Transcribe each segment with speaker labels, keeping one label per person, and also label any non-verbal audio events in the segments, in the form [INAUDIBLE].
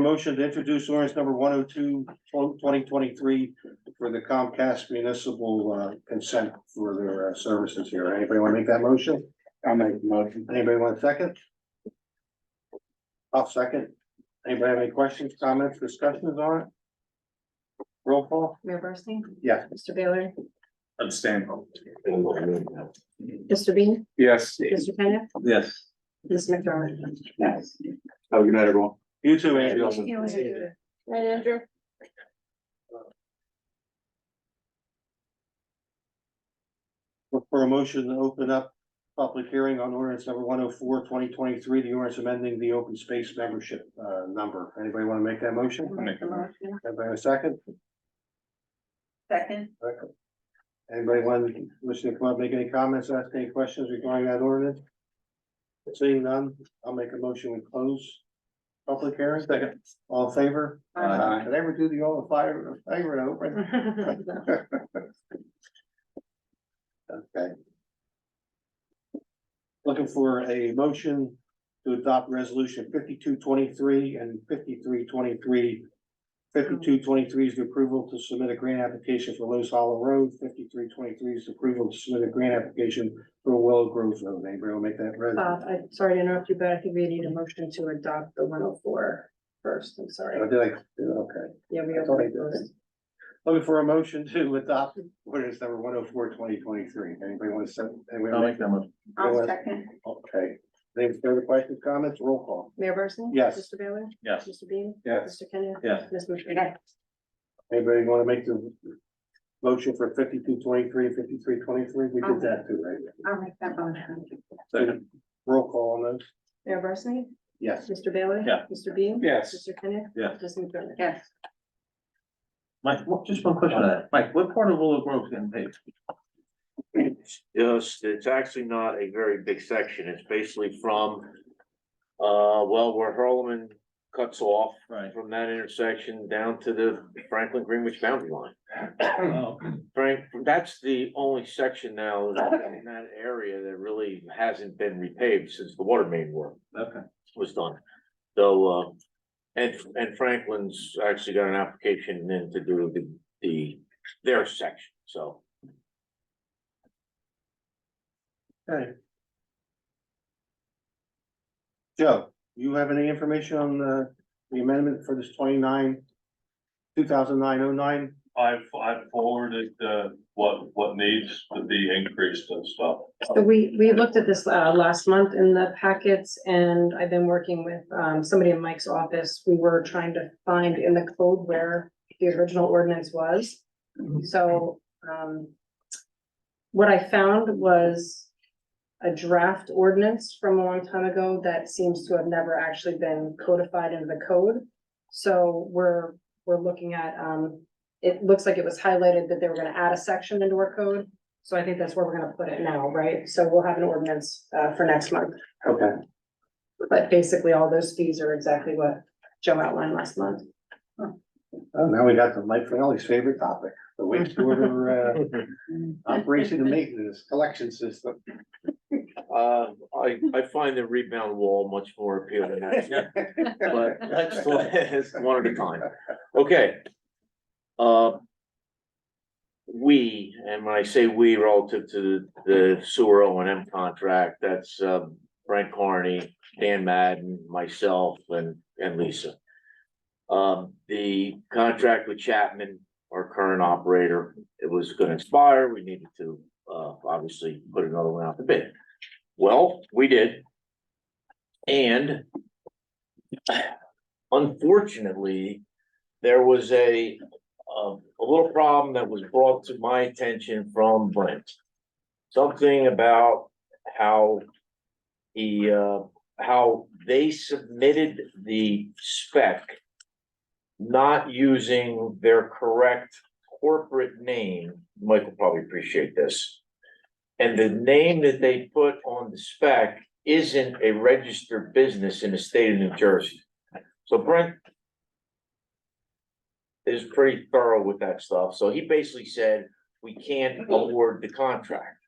Speaker 1: Motion to introduce ordinance number 102 2023 for the Comcast municipal uh, consent for their uh, services here. Anybody want to make that motion?
Speaker 2: I'll make the motion.
Speaker 1: Anybody want a second? I'll second. Anybody have any questions, comments, discussions on it? Roll call?
Speaker 3: Mayor Barsting?
Speaker 1: Yes.
Speaker 3: Mr. Baylor?
Speaker 2: Abstain.
Speaker 3: Mr. Bean?
Speaker 2: Yes.
Speaker 3: Mr. Kenneth?
Speaker 2: Yes.
Speaker 3: Ms. McDermott?
Speaker 2: Yes. Have a good night, everyone.
Speaker 1: You too, Andrew.
Speaker 3: Right, Andrew?
Speaker 1: Look For a motion to open up public hearing on ordinance number 104 2023, the ordinance amending the open space membership uh number. Anybody want to make that motion?
Speaker 2: make a
Speaker 1: Anybody have a second?
Speaker 3: Second.
Speaker 1: Anybody want to listen to come up, make any comments, ask any questions regarding that ordinance? Seeing none, I'll make a motion we close. Public hearing, second, all in favor?
Speaker 2: Aye.
Speaker 1: Did I ever do the all in favor, favor, I hope I- Okay. Looking for a motion to adopt resolution fifty-two twenty-three and fifty-three twenty-three. Fifty-two twenty-three is the approval to submit a grant application for Los Hollow Road, fifty-three twenty-three is the approval to submit a grant application for Willow Grove Road, anybody will make that res-
Speaker 3: [LAUGHS] Uh, I'm sorry to interrupt you, but I think we need a motion to adopt the 104 first. I'm
Speaker 1: Oh,
Speaker 3: sorry.
Speaker 1: did I, okay.
Speaker 3: Yeah, we
Speaker 1: I thought I did.
Speaker 3: already closed.
Speaker 1: Looking for a motion to adopt ordinance number one oh four twenty twenty-three, anybody want to say?
Speaker 2: I'll make that motion.
Speaker 1: I'll
Speaker 3: second.
Speaker 1: Okay, any further questions, comments, roll call?
Speaker 3: Mayor Barsting?
Speaker 1: Yes.
Speaker 3: Mr. Baylor?
Speaker 2: Yes.
Speaker 3: Mr. Bean?
Speaker 1: Yes.
Speaker 3: Mr. Kenneth?
Speaker 2: Yes.
Speaker 3: Ms. McDermott?
Speaker 1: Anybody wanna make the motion for fifty-two twenty-three, fifty-three twenty-three? We did that too, right?
Speaker 3: I'll make that motion.
Speaker 2: Second.
Speaker 1: Roll call on those?
Speaker 3: Mayor Barsting?
Speaker 1: Yes.
Speaker 3: Mr. Baylor?
Speaker 2: Yeah.
Speaker 3: Mr. Bean?
Speaker 2: Yes.
Speaker 3: Mr. Kenneth?
Speaker 2: Yes.
Speaker 3: Ms. McDermott? Yes.
Speaker 2: Mike, what- just one question on that. Mike, what part of Willow Grove is getting paved?
Speaker 4: Yes, it's actually not a very big section. It's basically from, uh, well, where Hurlman cuts off
Speaker 2: Right.
Speaker 4: from that intersection down to the Franklin Greenwich boundary line.
Speaker 2: Oh,
Speaker 4: Frank, that's the only section now in that area that really hasn't been repaved since the water main work
Speaker 2: okay.
Speaker 4: was done. Though, uh, and, and Franklin's actually got an application in to do the, the, their section, so.
Speaker 1: Okay. Joe, you have any information on the, the amendment for this twenty-nine, two thousand nine oh nine?
Speaker 5: I've, I've forwarded, uh, what, what needs to be increased and stuff.
Speaker 3: So we, we looked at this uh last month in the packets and I've been working with um somebody in Mike's office. We were trying to find in the code where the original ordinance was. So um what I found was a draft ordinance from a long time ago that seems to have never actually been codified into the code. So we're, we're looking at um, it looks like it was highlighted that they were gonna add a section into our code. So I think that's where we're gonna put it now, right? So we'll have an ordinance uh for next month,
Speaker 1: Okay.
Speaker 3: but basically all those fees are exactly what Joe outlined last month.
Speaker 1: Oh, now we got to Mike Finelli's favorite topic, the wastewater, uh, operation and maintenance, collection system.
Speaker 4: Uh, I, I find the rebound wall much more appealing, actually, but that's, that's one at a time. Okay. Uh. We, and when I say we relative to the sewer O and M contract, that's, uh, Brent Carney, Dan Madden, myself, and, and Lisa. Um, the contract with Chapman, our current operator, it was gonna expire, we needed to, uh, obviously put another one out to bid. Well, we did. And unfortunately, there was a, a, a little problem that was brought to my attention from Brent. Something about how he, uh, how they submitted the spec not using their correct corporate name. Michael probably appreciate this. And the name that they put on the spec isn't a registered business in the state of New Jersey. So Brent is pretty thorough with that stuff, so he basically said, we can't award the contract.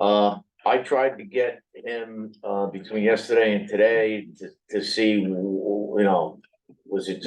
Speaker 4: Uh, I tried to get him, uh, between yesterday and today to, to see, you know, was it